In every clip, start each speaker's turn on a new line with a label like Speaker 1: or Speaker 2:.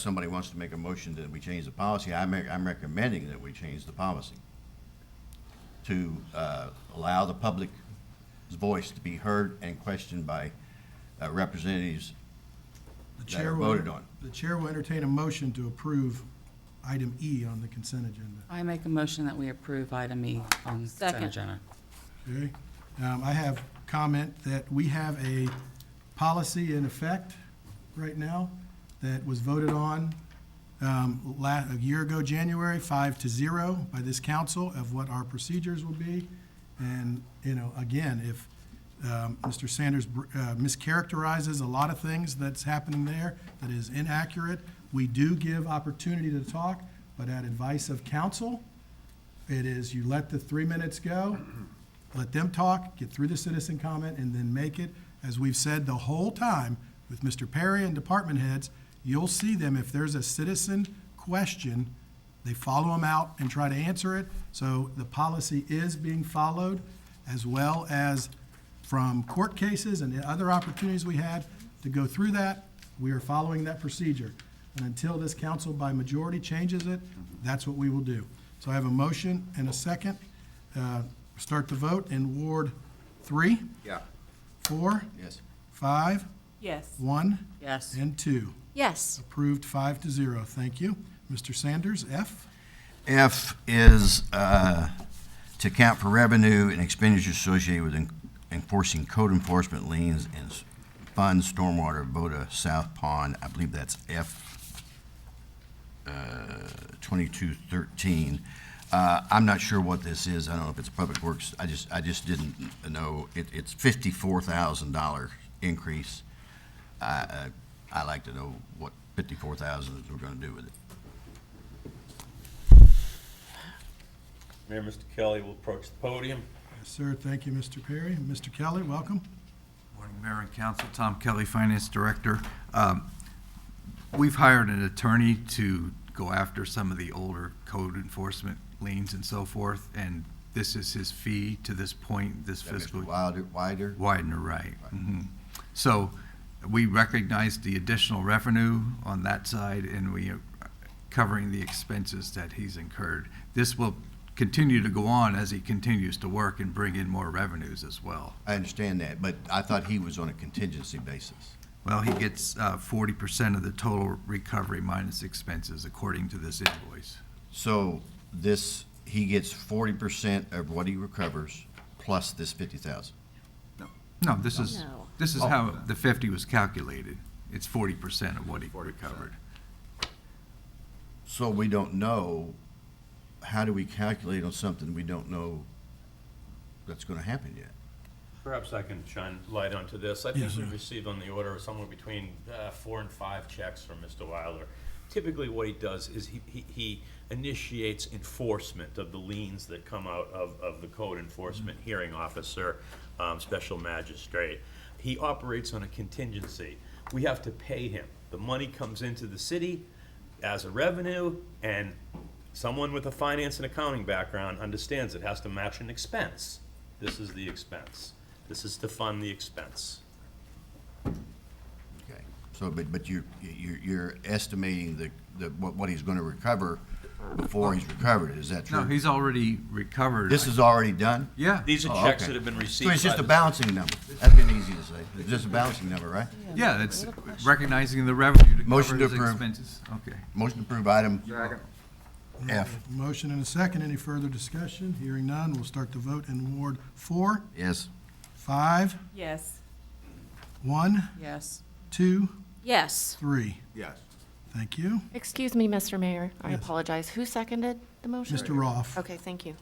Speaker 1: somebody wants to make a motion that we change the policy, I'm, I'm recommending that we change the policy to uh, allow the public's voice to be heard and questioned by uh, representatives
Speaker 2: The
Speaker 1: that are
Speaker 2: chair will-
Speaker 1: voted on.
Speaker 2: The chair will entertain a motion to approve item E on the consent agenda.
Speaker 3: I make a motion that we approve item E on consent
Speaker 4: Second.
Speaker 3: agenda.
Speaker 2: Okay? Um, I have comment that we have a policy in effect right now that was voted on um, la, a year ago, January, five to zero by this council of what our procedures will be. And, you know, again, if um, Mr. Sanders br- uh, mischaracterizes a lot of things that's happening there that is inaccurate, we do give opportunity to talk, but at advice of council, it is you let the three minutes go, let them talk, get through the citizen comment, and then make it, as we've said the whole time with Mr. Perry and department heads, you'll see them, if there's a citizen question, they follow them out and try to answer it. So the policy is being followed, as well as from court cases and the other opportunities we had to go through that, we are following that procedure. And until this council by majority changes it, that's what we will do. So I have a motion and a second. Uh, Start the vote in Ward three,
Speaker 1: Yeah.
Speaker 2: four,
Speaker 1: Yes.
Speaker 2: five,
Speaker 4: Yes.
Speaker 2: one,
Speaker 3: Yes.
Speaker 2: and 2.
Speaker 4: Yes.
Speaker 2: Approved 5 to 0. Thank you. Mr. Sanders, F.
Speaker 1: F is uh, to account for revenue and expenditures associated with en- enforcing code enforcement liens and s- fund stormwater Voda South Pond. I believe that's F uh, twenty-two thirteen. Uh, I'm not sure what this is. I don't know if it's Public Works. I just, I just didn't know. It- It's fifty-four thousand dollar increase. I, uh, I- I'd like to know what fifty-four thousand is we're going to do with it.
Speaker 5: Mayor, Mr. Kelly will approach the podium.
Speaker 2: Yes, sir. Thank you, Mr. Perry. Mr. Kelly, welcome.
Speaker 6: Morning, Mayor and Council. Tom Kelly, Finance Director. Um, We've hired an attorney to go after some of the older code enforcement liens and so forth, and this is his fee to this point, this
Speaker 1: That Mr.
Speaker 6: fiscal.
Speaker 1: Wilder, Wider?
Speaker 6: Widener, right. Mhm. So we recognize the additional revenue on that side, and we are covering the expenses that he's incurred. This will continue to go on as he continues to work and bring in more revenues as well.
Speaker 1: I understand that, but I thought he was on a contingency basis.
Speaker 6: Well, he gets uh, forty percent of the total recovery minus expenses, according to this invoice.
Speaker 1: So this, he gets forty percent of what he recovers plus this fifty thousand.
Speaker 6: No, this is,
Speaker 4: No.
Speaker 6: this
Speaker 1: Oh.
Speaker 6: is how the fifty was calculated. It's forty percent of what he recovered.
Speaker 1: So we don't know, how do we calculate on something we don't know that's gonna happen yet?
Speaker 5: Perhaps I can shine light onto this. I think
Speaker 2: Yes,
Speaker 5: we
Speaker 2: sir.
Speaker 5: received on the order somewhere between uh, four and five checks from Mr. Wilder. Typically, what he does is he- he he initiates enforcement of the liens that come out of of the code enforcement hearing officer, um, special magistrate. He operates on a contingency. We have to pay him. The money comes into the city as a revenue, and someone with a finance and accounting background understands it has to match an expense. This is the expense. This is to fund the expense.
Speaker 1: Okay. So, but, but you're, you're, you're estimating the, the, what, what he's gonna recover before he's recovered, it. is that
Speaker 6: No,
Speaker 1: true?
Speaker 6: he's already recovered.
Speaker 1: This is already done?
Speaker 6: Yeah,
Speaker 5: These are
Speaker 1: Oh,
Speaker 5: checks
Speaker 1: okay.
Speaker 5: that have been received.
Speaker 1: So it's just
Speaker 5: by
Speaker 1: a
Speaker 5: the-
Speaker 1: bouncing number, that'd been easy to say, it's just a bouncing number, right?
Speaker 6: yeah, it's recognizing the revenue to
Speaker 1: Motion
Speaker 6: cover
Speaker 1: to
Speaker 6: his
Speaker 1: approve.
Speaker 6: expenses. Okay.
Speaker 1: Motion to approve item F.
Speaker 2: Motion and a second. Any further discussion? Hearing none, we'll start the vote in Ward four,
Speaker 1: Yes.
Speaker 2: five,
Speaker 4: Yes.
Speaker 2: one,
Speaker 3: Yes.
Speaker 2: two,
Speaker 4: Yes.
Speaker 2: three.
Speaker 1: Yes.
Speaker 2: Thank you.
Speaker 7: Excuse me, Mr. Mayor. I
Speaker 2: Yes.
Speaker 7: apologize. Who seconded the motion?
Speaker 2: Mr. Roth. All
Speaker 7: Okay, thank you.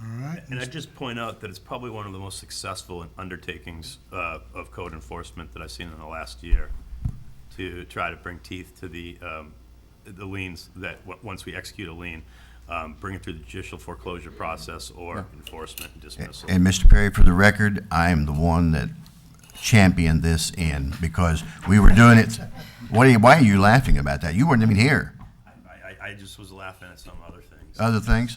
Speaker 2: right.
Speaker 5: And I'd just point out that it's probably one of the most successful undertakings uh, of code enforcement that I've seen in the last year to try to bring teeth to the, um, the liens that, w- once we execute a lien, um, bring it through the judicial foreclosure process or enforcement and dismissal.
Speaker 1: And Mr. Perry, for the record, I am the one that championed this in because we were doing it. What are you, why are you laughing about that? You weren't even here.
Speaker 5: I, I, I just was laughing at some other things.
Speaker 1: Other things?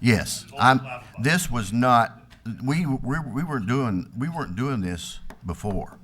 Speaker 1: Yes, I'm, this was not, we, we, we weren't doing, we weren't doing this before.